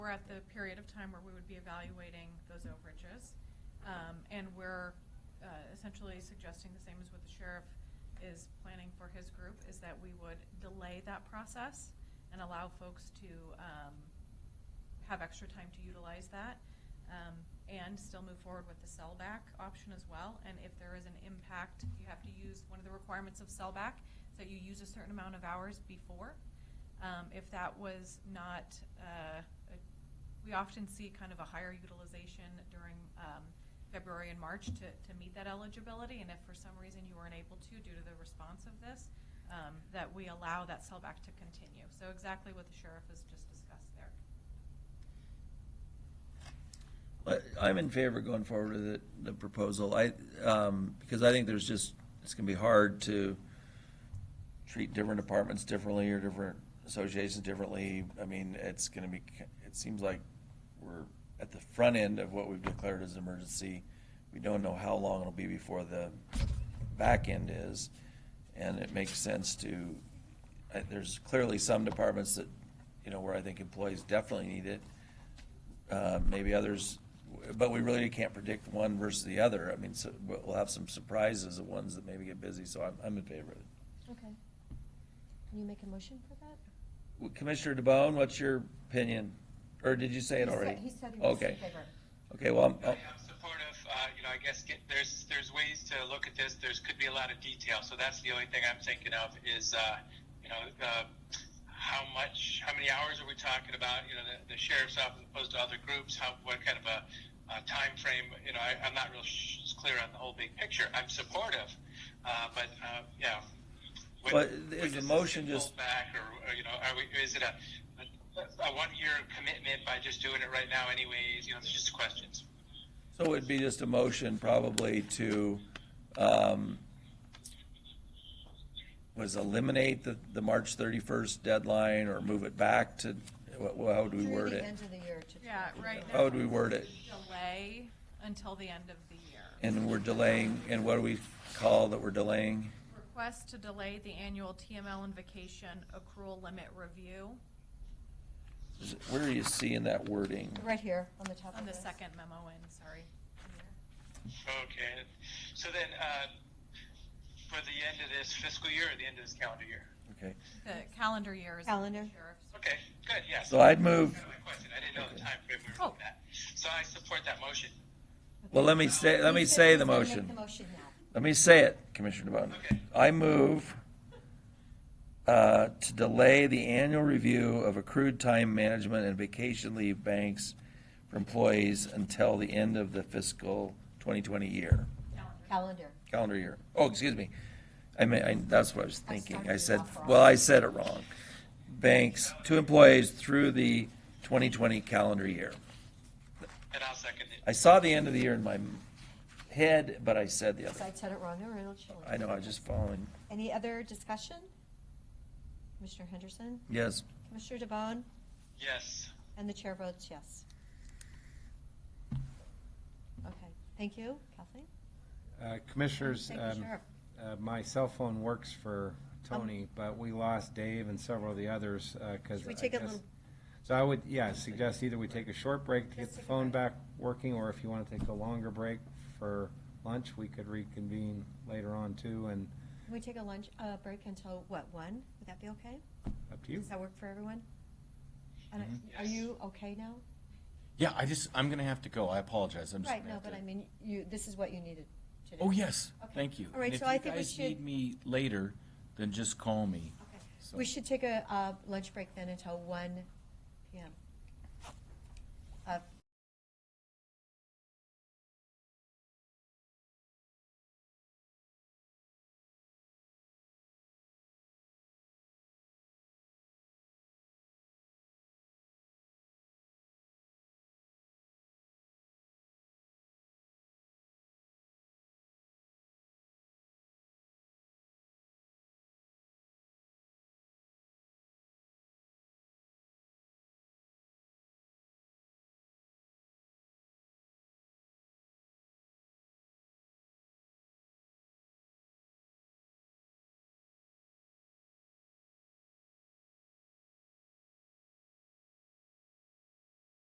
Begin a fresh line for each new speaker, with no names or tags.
at the period of time where we would be evaluating those overages. Um, and we're, uh, essentially suggesting the same as what the sheriff is planning for his group, is that we would delay that process and allow folks to, um, have extra time to utilize that, um, and still move forward with the sellback option as well. And if there is an impact, you have to use, one of the requirements of sellback, is that you use a certain amount of hours before. Um, if that was not, uh, a- we often see kind of a higher utilization during, um, February and March to, to meet that eligibility. And if for some reason you weren't able to due to the response of this, um, that we allow that sellback to continue. So exactly what the sheriff has just discussed there.
But I'm in favor of going forward with it, the proposal. I, um, because I think there's just, it's gonna be hard to treat different departments differently or different associations differently. I mean, it's gonna be, it seems like we're at the front end of what we've declared as an emergency. We don't know how long it'll be before the back end is. And it makes sense to, I- there's clearly some departments that, you know, where I think employees definitely need it uh, maybe others, but we really can't predict one versus the other. I mean, so we'll we'll have some surprises of ones that maybe get busy, so I'm, I'm in favor of it.
Okay. Can you make a motion for that?
Well, Commissioner DeBonne, what's your opinion? Or did you say it
He said-
already?
he said he was in
Okay.
favor.
Okay, well, I'm-
I am supportive. Uh, you know, I guess get, there's there's ways to look at this. There's could be a lot of detail. So that's the only thing I'm thinking of is, uh, you know, uh, how much, how many hours are we talking about? You know, the, the sheriff's office as opposed to other groups. How what kind of a, uh time frame? You know, I, I'm not real sh- clear on the whole big picture. I'm supportive, uh, but uh, yeah. When-
But
when
is
does
the
this
motion
get
just-
pulled back, or or, you know, are we? Is it a a one-year commitment by just doing it right now, anyways. You know, it's just questions.
so it'd be just a motion probably to, um, was eliminate the, the March thirty-first deadline or move it back to, what, how would we word
Through
it? Oh.
the end of the year to.
Yeah, right.
How would we word it?
Delay until the end of the year.
And we're delaying, and what do we call that we're delaying?
Request to delay the annual TML and vacation accrual limit review
Is it- Where are you seeing that wording?
Right here, on the top of
on the
this.
second memo in, sorry.
Okay, so then, uh, for the end of this fiscal year or the end of this calendar year?
Okay,
The calendar year is. what the
Calendar.
sheriff's-
Okay, good, yes.
so I'd move,
That's kind of my question, I didn't know the
Okay.
timeframe we were
Oh.
looking at. So I support that motion.
well, let me say, let me
He said
say
he's
the
gonna Make the
motion.
motion now.
Let me say it, Commissioner DeBonne.
Okay.
I move uh, to delay the annual review of accrued time management and vacation leave banks for employees until the end of the fiscal 2020 year,
Calendar.
calendar year. Oh, excuse me. I mean, I- that's what I was
I
thinking.
started
I
it
said,
off wrong.
well, I said it wrong. Banks to employees through the 2020 calendar year.
And I'll second it.
I saw the end of the year in my head, but I said the
So I
other.
said it wrong, or it'll change.
I know, I was just following.
Any other discussion? Commissioner Henderson,
Yes.
Commissioner DeBonne,
Yes,
and the chair votes yes. Okay, thank you, Kathleen.
Uh, Commissioners,
Thank you,
um,
Sheriff. Um,
uh, my cell phone works for Tony, but we lost Dave and several of the others uh, because.
Should we take a little-
So I would, yeah, suggest either we take a short break to get
Let's
the
take a
phone
break.
back working, or if you want to take a longer break for lunch, we could reconvene later on too, and
Can we take a lunch, uh, break until, what, one? Would that be okay?
up to you.
Does that work for everyone? And I-
Mm-hmm.
Are
Yes.
you okay now?
Yeah, I just, I'm gonna have to go. I apologize. I'm just.
Right,
gonna
no,
have
but
to-
I mean, you, this is what you needed today.
Oh, yes,
Okay.
thank you.
All right,
And
so I think we should-
If you guys need me later, then just call me.
Okay.
So-
We should take a uh, lunch break then until one PM.